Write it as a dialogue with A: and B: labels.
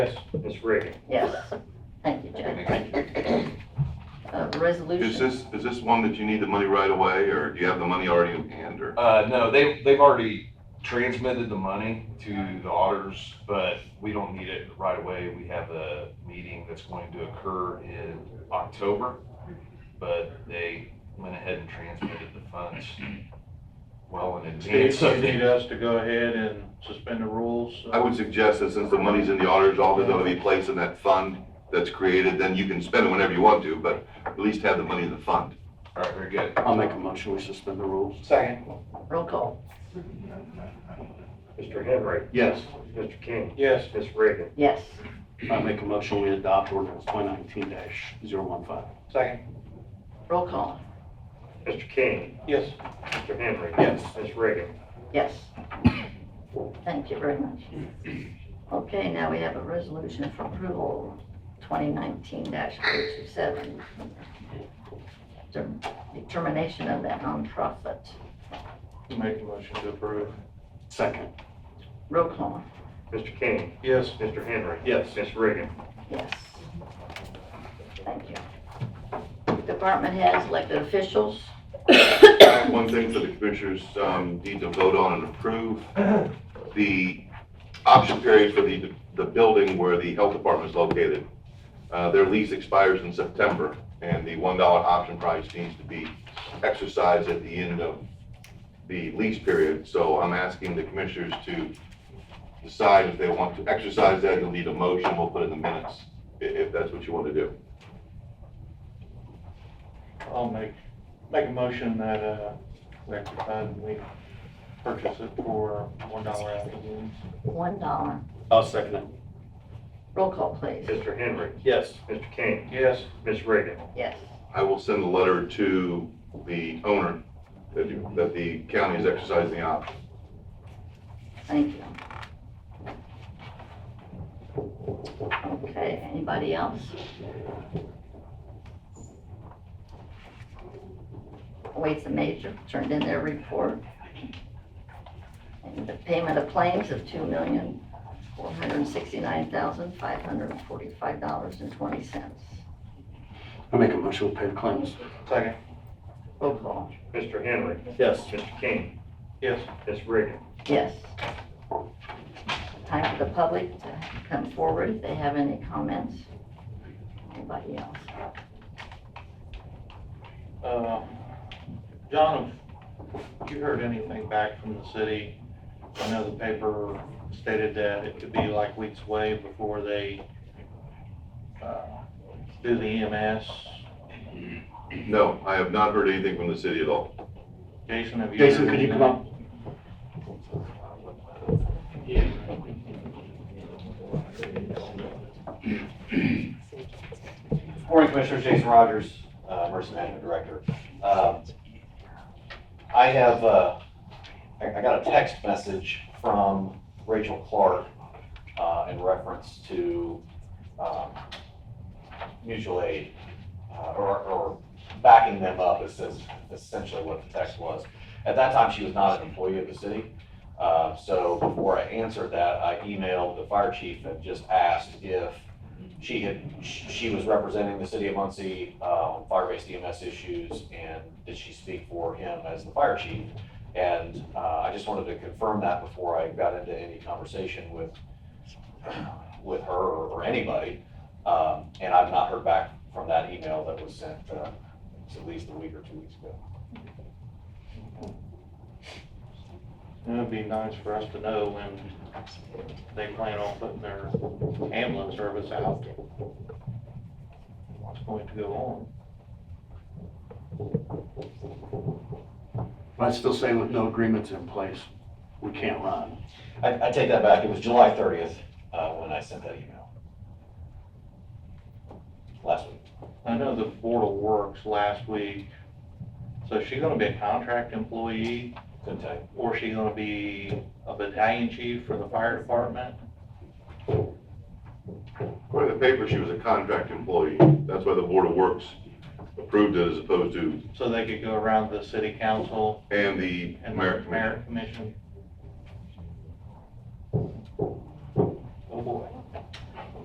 A: Yes. Ms. Reagan?
B: Yes. Thank you, Jack. Uh,
C: Is
B: Resolution,
C: this, is this one that you need the money right away, or do you have the money already in hand, or?
D: Uh, no, they, they've already transmitted the money to the auditors, but we don't need it right away. We have a meeting that's going to occur in October, but they went ahead and transmitted the funds well in advance.
A: Steve,
D: of
A: you need
D: the-
A: us to go ahead and suspend the rules?
C: I would suggest that since the money's in the auditor's office, it'll be placed in that fund that's created, then you can spend it whenever you want to, but at least have the money in the fund.
D: All right, very good.
E: I'll make a motion, we suspend the rules.
A: Second.
B: roll call.
F: Mr. Henry,
E: Yes,
F: Mr. King,
A: Yes.
F: Miss Reagan,
B: Yes.
E: I make a motion, we adopt ordinance twenty nineteen 15
A: Second.
B: Roll call.
F: Mr. King,
A: Yes.
F: Mr. Henry.
E: Yes.
F: Miss Reagan,
B: Yes. Thank you very much. Okay, now we have a resolution for approval, 2019-327. Determination of that nonprofit.
A: Make the motion to approve.
E: Second,
B: Roll call.
F: Mr. King,
A: Yes.
F: Mr. Henry.
A: Yes.
F: Miss Reagan,
B: Yes. Thank you. Department heads, elected officials.
C: One thing for the commissioners, um, need to vote on and approve, the option period for the, the building where the health department is located. Uh, their lease expires in September, and the one dollar option price needs to be exercised at the end of the lease period. So I'm asking the commissioners to decide if they want to exercise that, you'll need a motion, we'll put it in the minutes, i- if that's what you want to do.
A: I'll make, make a motion that, uh, we have to fund, we purchase it for one dollar out of the woods.
B: $1.
E: I'll second it.
B: Roll call, please.
F: Mr. Henry,
A: Yes.
F: Mr. King,
A: Yes.
F: Miss Reagan,
B: Yes.
C: I will send a letter to the owner that you, that the county is exercising the option.
B: Thank you. Okay, anybody else? Waits and Major turned in their report. And the payment of claims of two million, four hundred and sixty-nine thousand, five hundred and forty-five dollars and twenty cents.
E: I make a motion, we pay the claims.
A: Second.
B: Roll call.
F: Mr. Henry,
A: Yes.
F: Mr. King,
A: Yes.
F: Miss Reagan.
B: Yes. Time for the public to come forward if they have any comments. Anybody else?
A: Uh, John, have you heard anything back from the city? I know the paper stated that it could be like weeks away before they uh, do the E EMS.
C: No, I have not heard anything from the city at all.
A: Jason, have you? heard
E: Jason, could you come
A: anything?
E: up?
G: Morning Commissioners, Jason Rogers, uh, Emergency Management Director. Um, I have, uh, I I got a text message from Rachel Clark uh, in reference to um, mutual aid uh, or- or backing them up is is essentially what the text was. At that time, she was not an employee of the city. Uh, So before I answered that, I emailed the fire chief and just asked if she had, sh- she was representing the city of Muncie uh, on fire-based EMS issues, and did she speak for him as the fire chief? And uh, I just wanted to confirm that before I got into any conversation with, with her or or anybody. Um, And I've not heard back from that email that was sent uh, at least a week or two weeks ago.
A: It would be nice for us to know when they plan on putting their ambulance service out. What's going to go on?
E: But I still say with no agreements in place, we can't run.
G: I, I take that back, it was July thirtieth uh, when I sent that email. Last week.
A: I know the Board of Works last week, so is she gonna be a contract employee?
G: Couldn't tell you.
A: Or is she gonna be a battalion chief for the fire department?
C: According to the paper, she was a contract employee. That's why the Board of Works approved it as opposed to,
A: So they could go around the city council
C: and the
A: and
C: merit
A: the
C: commission.
A: merit commission? Oh,